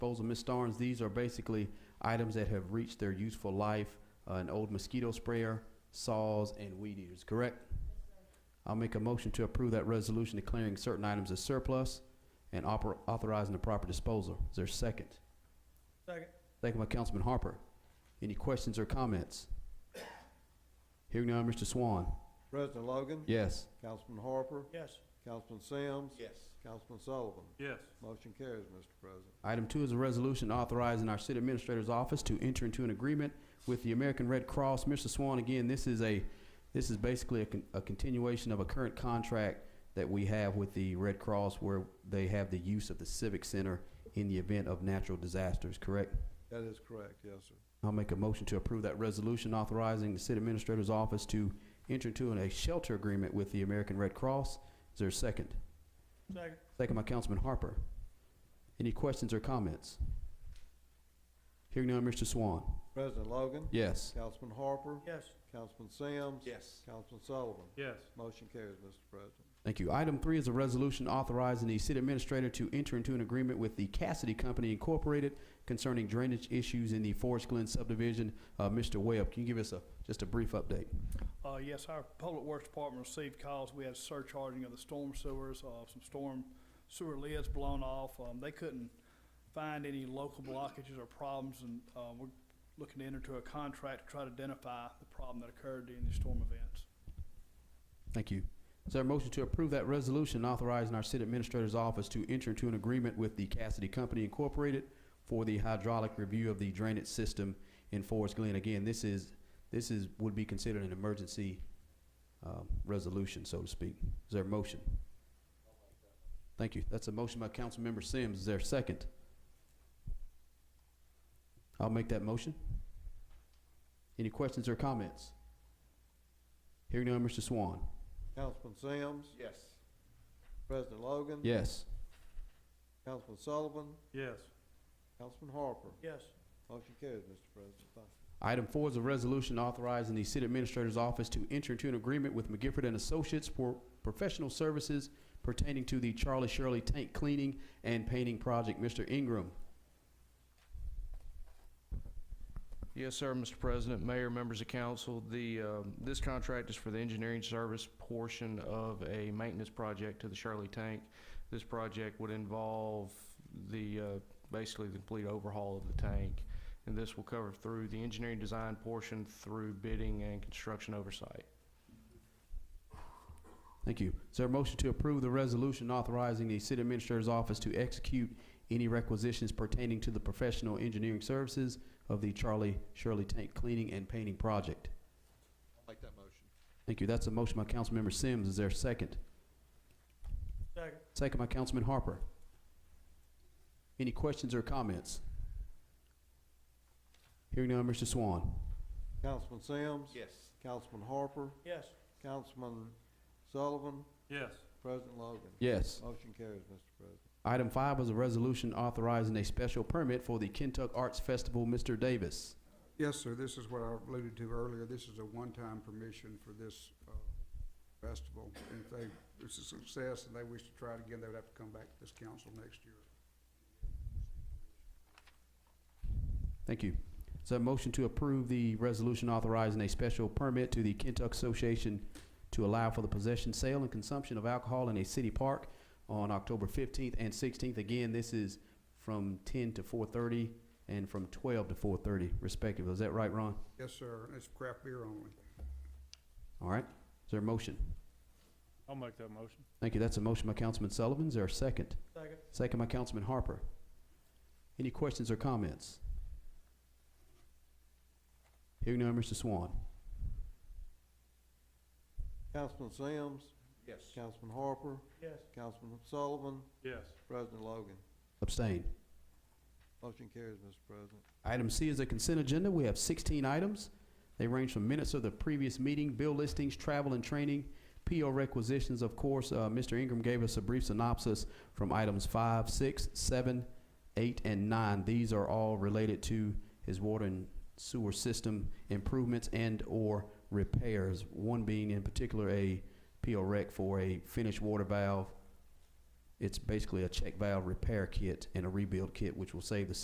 disposal. Ms. Starnes, these are basically items that have reached their useful life, uh, an old mosquito sprayer, saws, and weed eaters, correct? I'll make a motion to approve that resolution declaring certain items as surplus and oper- authorizing the proper disposal. Is there a second? Second. Thank you, my Councilman Harper. Any questions or comments? Hearing none, Mr. Swan. President Logan. Yes. Councilman Harper. Yes. Councilman Sims. Yes. Councilman Sullivan. Yes. Motion carries, Mr. President. Item two is a resolution authorizing our city administrator's office to enter into an agreement with the American Red Cross. Mr. Swan, again, this is a, this is basically a, con- a continuation of a current contract that we have with the Red Cross where they have the use of the Civic Center in the event of natural disasters, correct? That is correct, yes, sir. I'll make a motion to approve that resolution authorizing the city administrator's office to enter into an- a shelter agreement with the American Red Cross. Is there a second? Second. Second by Councilman Harper. Any questions or comments? Hearing none, Mr. Swan. President Logan. Yes. Councilman Harper. Yes. Councilman Sims. Yes. Councilman Sullivan. Yes. Motion carries, Mr. President. Thank you. Item three is a resolution authorizing the city administrator to enter into an agreement with the Cassidy Company Incorporated concerning drainage issues in the Forest Glen subdivision. Uh, Mr. Webb, can you give us a, just a brief update? Uh, yes, our public works department received calls, we had surcharging of the storm sewers, uh, some storm sewer lids blown off, um, they couldn't find any local blockages or problems, and, uh, we're looking to enter into a contract to try to identify the problem that occurred during the storm events. Thank you. Is there a motion to approve that resolution authorizing our city administrator's office to enter into an agreement with the Cassidy Company Incorporated for the hydraulic review of the drainage system in Forest Glen? Again, this is, this is, would be considered an emergency, um, resolution, so to speak. Is there a motion? Thank you. That's a motion by Councilmember Sims. Is there a second? I'll make that motion. Any questions or comments? Hearing none, Mr. Swan. Councilman Sims. Yes. President Logan. Yes. Councilman Sullivan. Yes. Councilman Harper. Yes. Motion carries, Mr. President. Thank you. Item four is a resolution authorizing the city administrator's office to enter into an agreement with McGifford and Associates for professional services pertaining to the Charlie Shirley tank cleaning and painting project. Mr. Ingram. Yes, sir, Mr. President, Mayor, members of council, the, um, this contract is for the engineering service portion of a maintenance project to the Shirley Tank. This project would involve the, uh, basically the complete overhaul of the tank. And this will cover through the engineering design portion through bidding and construction oversight. Thank you. Is there a motion to approve the resolution authorizing the city administrator's office to execute any requisitions pertaining to the professional engineering services of the Charlie Shirley tank cleaning and painting project? I'll make that motion. Thank you. That's a motion by Councilmember Sims. Is there a second? Second. Second by Councilman Harper. Any questions or comments? Hearing none, Mr. Swan. Councilman Sims. Yes. Councilman Harper. Yes. Councilman Sullivan. Yes. President Logan. Yes. Motion carries, Mr. President. Item five is a resolution authorizing a special permit for the Kentuck Arts Festival. Mr. Davis. Yes, sir, this is what I alluded to earlier. This is a one-time permission for this uh, festival. And If they, it's a success and they wish to try it again, they would have to come back to this council next year. Thank you. Is there a motion to approve the resolution authorizing a special permit to the Kentuck Association to allow for the possession, sale, and consumption of alcohol in a city park on October fifteenth and sixteenth? Again, this is from ten to four thirty and from twelve to four thirty respectively. Is that right, Ron? Yes, sir, and it's craft beer only. All right. Is there a motion? I'll make that motion. Thank you. That's a motion by Councilman Sullivan. Is there a second? Second. Second by Councilman Harper. Any questions or comments? Hearing none, Mr. Swan. Councilman Sims. Yes. Councilman Harper. Yes. Councilman Sullivan. Yes. President Logan. Abstain. Motion carries, Mr. President. Item C is a consent agenda. We have 16 items. They range from minutes of the previous meeting, bill listings, travel and training, PO requisitions, of course. Uh, Mr. Ingram gave us a brief synopsis from items five, six, seven, eight, and nine. These are all related to his water and sewer system improvements and/or repairs, one being in particular a PO rec for a finished water valve It's basically a check valve repair kit and a rebuild kit, which will save the